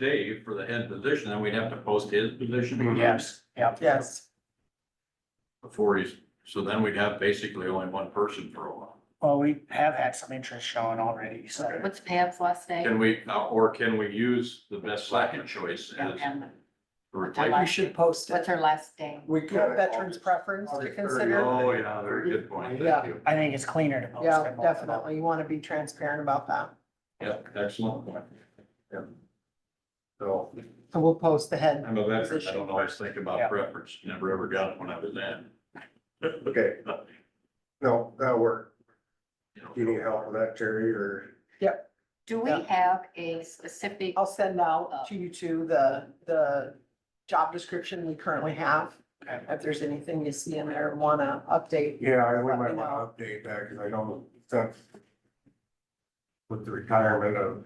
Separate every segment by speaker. Speaker 1: Dave for the head position, then we'd have to post his position.
Speaker 2: Yes, yeah.
Speaker 3: Yes,
Speaker 1: Before he's, so then we'd have basically only one person for a while.
Speaker 2: Well, we have had some interest shown already, so.
Speaker 4: What's Pam's last name?
Speaker 1: Can we, uh, or can we use the best second choice as a
Speaker 4: And
Speaker 1: replacement?
Speaker 3: we should post
Speaker 4: What's
Speaker 3: it.
Speaker 4: her last name?
Speaker 3: We could veterans preference to consider.
Speaker 1: Oh, yeah, very good point.
Speaker 3: Yeah.
Speaker 1: Thank you.
Speaker 2: I think it's cleaner to post.
Speaker 3: Yeah,
Speaker 2: than multiple.
Speaker 3: definitely. You want to be transparent about that.
Speaker 1: Yeah, excellent point. Yeah. So
Speaker 3: So we'll post the head.
Speaker 1: I'm a veteran. I don't always think about preference. Never ever got it when I was in.
Speaker 5: Okay. No, that'll work.
Speaker 1: You know,
Speaker 5: Do you need help with that, Terry, or?
Speaker 4: Do we
Speaker 3: Yeah. Oh.
Speaker 4: have a specific,
Speaker 3: I'll send out to you two the, the job description we currently have.
Speaker 2: Okay.
Speaker 3: If there's anything you see in there, want to update.
Speaker 5: Yeah, I we
Speaker 3: Let me
Speaker 5: might
Speaker 3: know.
Speaker 5: want to update that, because I know since with the retirement of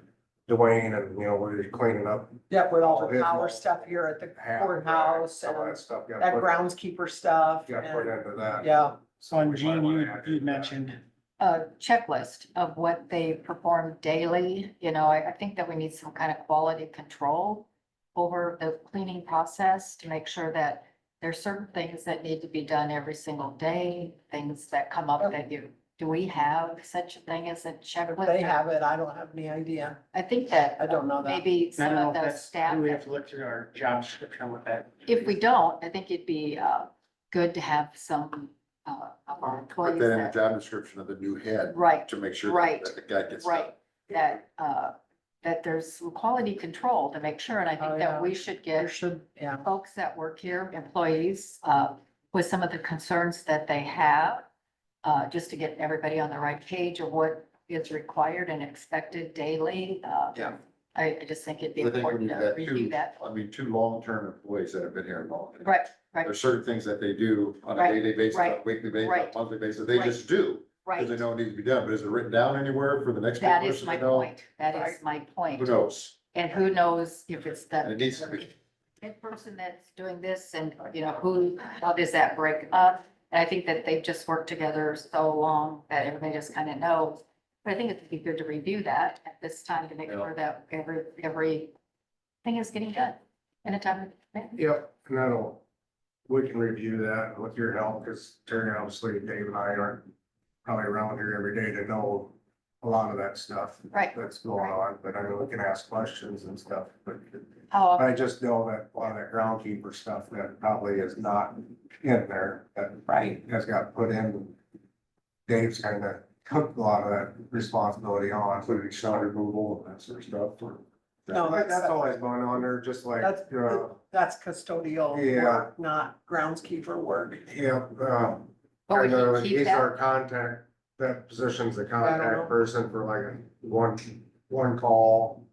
Speaker 5: Dwayne and, you know, we're just cleaning up
Speaker 3: Yep, with all
Speaker 5: All
Speaker 3: the
Speaker 5: his
Speaker 3: power
Speaker 5: knowledge.
Speaker 3: stuff here at the
Speaker 5: half. of that,
Speaker 3: courthouse
Speaker 5: Some of
Speaker 3: and
Speaker 5: that stuff got
Speaker 3: that
Speaker 5: put,
Speaker 3: groundskeeper stuff.
Speaker 5: got put
Speaker 3: and-
Speaker 5: into that.
Speaker 3: Yeah,
Speaker 2: So and
Speaker 5: We might
Speaker 2: Gene, you,
Speaker 5: wanna add
Speaker 2: you
Speaker 5: to that.
Speaker 2: mentioned,
Speaker 4: uh, checklist of what they perform daily? You know, I, I think that we need some kind of quality control over the cleaning process to make sure that there's certain things that need to be done every single day, things that come up that you, do we have such a thing as a
Speaker 3: if
Speaker 4: checklist?
Speaker 3: they have it. I don't have any idea.
Speaker 4: I think that.
Speaker 3: I don't know that.
Speaker 4: Maybe
Speaker 2: I
Speaker 4: some
Speaker 2: don't know
Speaker 4: of
Speaker 2: if
Speaker 4: the
Speaker 2: that's,
Speaker 4: staff.
Speaker 2: we
Speaker 4: that
Speaker 2: have to look through our job description with that.
Speaker 4: If we don't, I think it'd be uh, good to have some uh, of our
Speaker 6: Put
Speaker 4: employees
Speaker 6: that in the
Speaker 4: that,
Speaker 6: job description of the new head
Speaker 4: right,
Speaker 6: to make sure
Speaker 4: Right,
Speaker 6: that the guy gets.
Speaker 4: right, that, uh, that there's some quality control to make sure. And I
Speaker 3: Oh,
Speaker 4: think
Speaker 3: yeah.
Speaker 4: that we should
Speaker 3: There
Speaker 4: get
Speaker 3: should, yeah.
Speaker 4: folks that work here, employees, uh, with some of the concerns that they have, uh, just to get everybody on the right page of what is required and expected daily. Uh,
Speaker 6: Yeah.
Speaker 4: I I just think it'd be
Speaker 6: I think when
Speaker 4: important
Speaker 6: you've
Speaker 4: to
Speaker 6: got
Speaker 4: review
Speaker 6: two,
Speaker 4: that.
Speaker 6: I mean, two long-term employees that have been here long.
Speaker 4: Right, right,
Speaker 6: There's certain things that they do on a
Speaker 4: Right,
Speaker 6: day-to-day basis, on a
Speaker 4: right,
Speaker 6: weekly basis, on
Speaker 4: right,
Speaker 6: a monthly basis, they
Speaker 4: right.
Speaker 6: just do.
Speaker 4: right.
Speaker 6: Cause they know it needs to be done, but is it written down anywhere for the next
Speaker 4: That is
Speaker 6: person
Speaker 4: my
Speaker 6: to know?
Speaker 4: point. That is my
Speaker 6: Who
Speaker 4: point.
Speaker 6: knows?
Speaker 4: And who knows if it's
Speaker 6: And
Speaker 4: the.
Speaker 6: it needs to be.
Speaker 4: that person that's doing this and, you know, who, how does that break up? And I think that they've just worked together so long that everybody just kind of knows. But I think it'd be good to review that at this time to make
Speaker 6: Yeah.
Speaker 4: sure that every, every thing is getting done in a timely manner.
Speaker 5: Yep, and that'll, we can review that with your help, because Terry, obviously, Dave and I aren't probably around here every day to know a lot of that stuff
Speaker 4: Right.
Speaker 5: that's going on, but I know we can ask questions and stuff, but
Speaker 4: How often
Speaker 5: I just know that a lot of that groundkeeper stuff that probably is not in there, that
Speaker 3: Right.
Speaker 5: has got put in. Dave's kind of took a lot of that responsibility on, including snow removal and that sort of stuff.
Speaker 3: No,
Speaker 5: That-
Speaker 3: that's-
Speaker 5: That's always going on there, just like,
Speaker 3: That's-
Speaker 5: uh,
Speaker 3: That's custodial
Speaker 5: Yeah.
Speaker 3: work, not groundskeeper work.
Speaker 5: yeah, um,
Speaker 4: But we
Speaker 5: And, uh,
Speaker 4: can Oh, keep
Speaker 5: he's
Speaker 4: that,
Speaker 5: our contact, that position's the
Speaker 3: know.
Speaker 5: contact person for like a one, one call.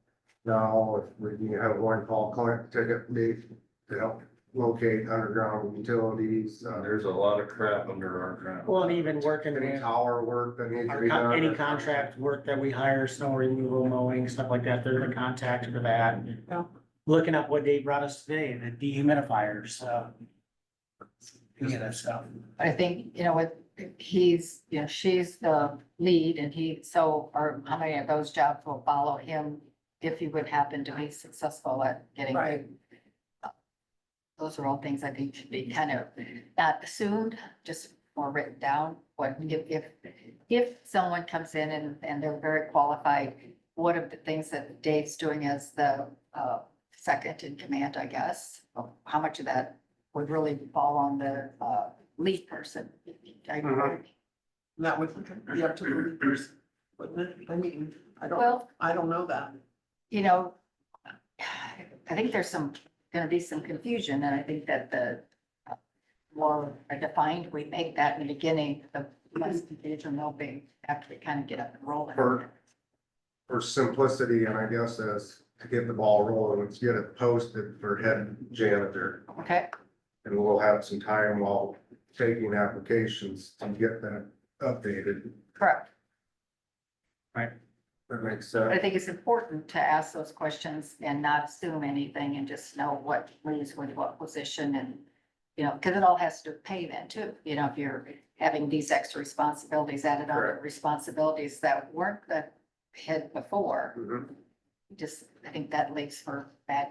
Speaker 5: Now, if we can have one call, collect ticket, meet to help locate underground utilities, uh, there's
Speaker 1: There's a lot of crap under our ground.
Speaker 2: Well, and even working
Speaker 5: any
Speaker 2: in
Speaker 5: tower work that needs to
Speaker 2: our
Speaker 5: be
Speaker 2: con-
Speaker 5: done.
Speaker 2: any contract work that we hire, snow removal, mowing, stuff like that, they're the contact for that.
Speaker 3: Yeah.
Speaker 2: Looking up what Dave brought us today, the dehumidifiers, uh. Any of that stuff.
Speaker 4: I think, you know, with, he's, you know, she's the lead and he, so, or how many of those jobs will follow him if he would happen to be successful at getting
Speaker 3: Right.
Speaker 4: those are all things I think should be kind of not assumed, just more written down. What if, if, if someone comes in and, and they're very qualified, what are the things that Dave's doing as the, uh, second in command, I guess? How much of that would really fall on the, uh, lead person? I-
Speaker 5: Mhm.
Speaker 3: And That would be up to the leaders, wouldn't it? I mean, I don't,
Speaker 4: Well,
Speaker 3: I don't know that.
Speaker 4: you know, I think there's some, gonna be some confusion, and I think that the uh, more defined we make that in the beginning, the less confusion there'll be after we kind of get up and rolling.
Speaker 5: Sure. For simplicity, and I guess as to get the ball rolling, let's get it posted for head janitor.
Speaker 4: Okay,
Speaker 5: And we'll have some time while taking applications to get that updated.
Speaker 4: correct.
Speaker 5: That makes
Speaker 4: But
Speaker 5: sense.
Speaker 4: I think it's important to ask those questions and not assume anything and just know what leads with what position and, you know, because it all has to do with pay then too. You know, if you're having these extra responsibilities added on, to
Speaker 5: Correct.
Speaker 4: responsibilities that weren't the head before,
Speaker 5: Mhm.
Speaker 4: Just, I think that leaves for bad